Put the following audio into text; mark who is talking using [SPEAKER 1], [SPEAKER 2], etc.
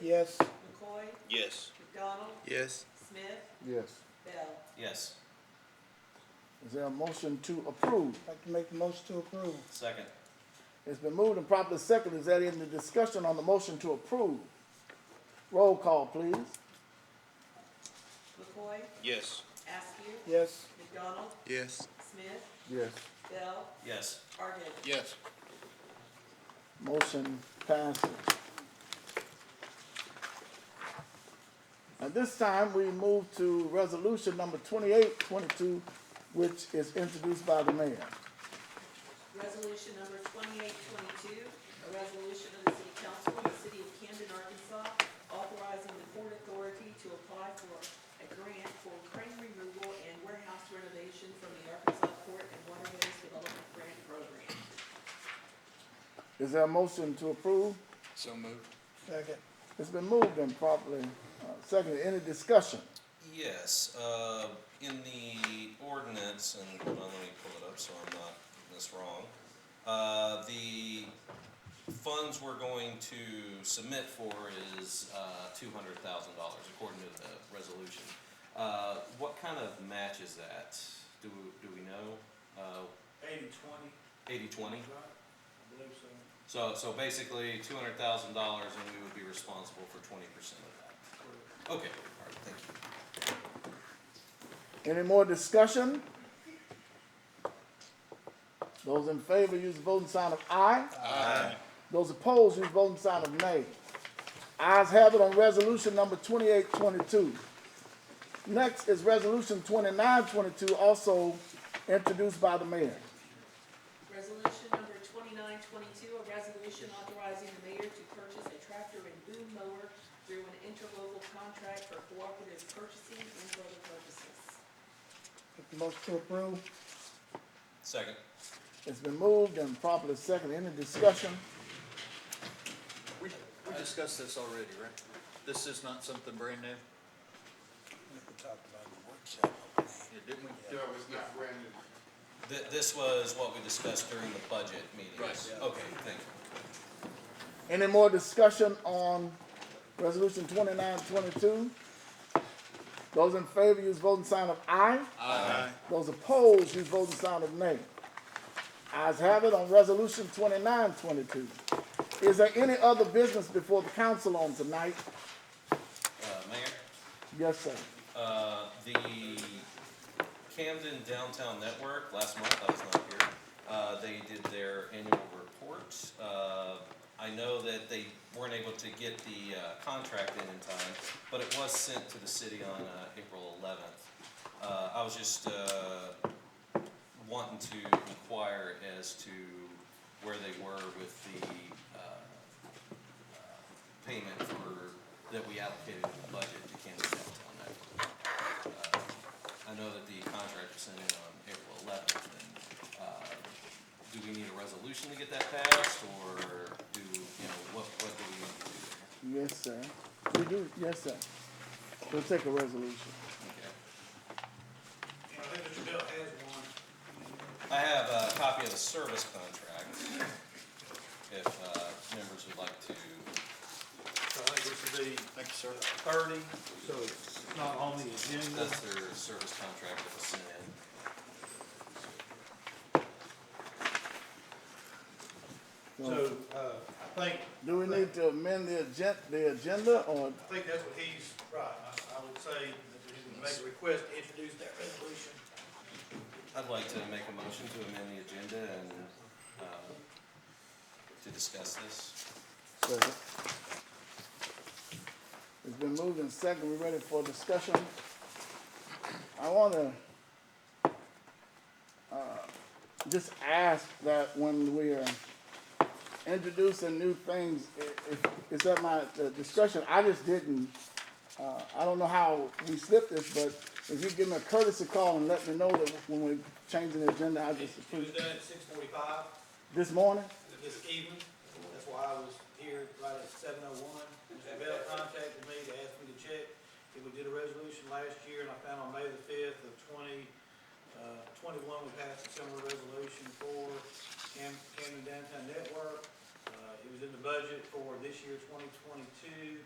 [SPEAKER 1] Yes.
[SPEAKER 2] McCoy,
[SPEAKER 3] Yes.
[SPEAKER 2] McDonald,
[SPEAKER 3] Yes.
[SPEAKER 2] Smith,
[SPEAKER 4] Yes.
[SPEAKER 2] Bell.
[SPEAKER 5] Yes,
[SPEAKER 4] Is there a motion to approve?
[SPEAKER 1] I'd like to make the motion to approve.
[SPEAKER 5] second.
[SPEAKER 4] It's been moved and properly seconded. Is that in the discussion on the motion to approve? Roll call, please.
[SPEAKER 2] McCoy,
[SPEAKER 3] Yes.
[SPEAKER 2] Askew,
[SPEAKER 1] Yes.
[SPEAKER 2] McDonald,
[SPEAKER 3] Yes.
[SPEAKER 2] Smith,
[SPEAKER 4] Yes.
[SPEAKER 2] Bell,
[SPEAKER 5] Yes,
[SPEAKER 2] Argid.
[SPEAKER 3] Yes.
[SPEAKER 4] Motion passes. At this time, we move to resolution number twenty-eight twenty-two, which is introduced by the mayor.
[SPEAKER 2] Resolution number twenty-eight twenty-two, a resolution of the city council of the city of Camden, Arkansas, authorizing the port authority to apply for a grant for crane removal and warehouse renovation from the Arkansas Port and Waterways Development Grant Program.
[SPEAKER 4] Is there a motion to approve?
[SPEAKER 3] So moved.
[SPEAKER 1] Second.
[SPEAKER 4] It's been moved and properly uh, seconded. Any discussion?
[SPEAKER 5] yes, uh, in the ordinance, and hold on, let me pull it up so I'm not getting this wrong. Uh, the funds we're going to submit for is, uh, two hundred thousand dollars according to the resolution. Uh, what kind of match is that? Do, do we know? Uh,
[SPEAKER 6] Eighty twenty,
[SPEAKER 5] eighty twenty?
[SPEAKER 6] right? I believe so.
[SPEAKER 5] So, so basically, two hundred thousand dollars, and we would be responsible for twenty percent of that. Okay, all right, thank you.
[SPEAKER 4] Any more discussion? Those in favor, use the voting sign of aye.
[SPEAKER 3] Aye.
[SPEAKER 4] Those opposed, use the voting sign of nay. Ayes have it on resolution number twenty-eight twenty-two. Next is resolution twenty-nine twenty-two, also introduced by the mayor.
[SPEAKER 2] Resolution number twenty-nine twenty-two, a resolution authorizing the mayor to purchase a tractor and boom mower through an interlocal contract for cooperative purchasing and further purposes.
[SPEAKER 1] Make the motion to approve.
[SPEAKER 5] Second.
[SPEAKER 4] It's been moved and properly seconded. Any discussion?
[SPEAKER 7] We, we discussed this already, right? This is not something brand new? We talked about the workshop. Yeah,
[SPEAKER 8] No, it's not brand new.
[SPEAKER 5] Th- this was what we discussed during the budget meetings.
[SPEAKER 7] Right.
[SPEAKER 5] Okay, thank you.
[SPEAKER 4] Any more discussion on resolution twenty-nine twenty-two? Those in favor, use voting sign of aye. Aye. Those opposed, use voting sign of nay. Ayes have it on resolution twenty-nine twenty-two. Is there any other business before the council on tonight?
[SPEAKER 5] Uh, Mayor,
[SPEAKER 4] Yes, sir.
[SPEAKER 5] uh, the Camden Downtown Network, last month, I was not here, uh, they did their annual report. Uh, I know that they weren't able to get the, uh, contract in in time, but it was sent to the city on, uh, April eleventh. Uh, I was just, uh, wanting to inquire as to where they were with the uh, uh, payment for, that we allocated in the budget to Kansas Downtown Network. Uh, I know that the contract was sent in on April eleventh, and uh, do we need a resolution to get that passed, or do, you know, what, what do we need to do there?
[SPEAKER 4] Yes, sir. We do, yes, sir. We'll take a resolution.
[SPEAKER 5] Okay.
[SPEAKER 6] And I think Mr. Bell has one.
[SPEAKER 5] I have a copy of the service contract, if uh, members would like to
[SPEAKER 7] I
[SPEAKER 6] Uh,
[SPEAKER 7] think this would be. Thank you, sir.
[SPEAKER 6] Thirty, so it's not on the agenda.
[SPEAKER 5] That's their service contract that was sent in.
[SPEAKER 6] So, uh, I think,
[SPEAKER 4] Do we need to amend the agen, the agenda or
[SPEAKER 6] I think that's what he's, right, I, I would say that we can make a request to introduce that resolution.
[SPEAKER 5] I'd like to make a motion to amend the agenda and, uh, to discuss this.
[SPEAKER 4] Second. It's been moved and second, we ready for discussion? I wanna, uh, just ask that when we are introducing new things, i- if, it's at my uh, discretion, I just didn't, uh, I don't know how we slipped this, but if you give me a courtesy call and let me know that when we're changing the agenda, I just
[SPEAKER 6] It was
[SPEAKER 4] approve.
[SPEAKER 6] done at six forty-five
[SPEAKER 4] This morning?
[SPEAKER 6] this evening, that's why I was here right at seven oh one. Mr. Bell contacted me to ask me to check, if we did a resolution last year, and I found on May the fifth of twenty, uh, twenty-one, we passed a similar resolution for Cam, Camden Downtown Network. Uh, it was in the budget for this year, twenty twenty-two.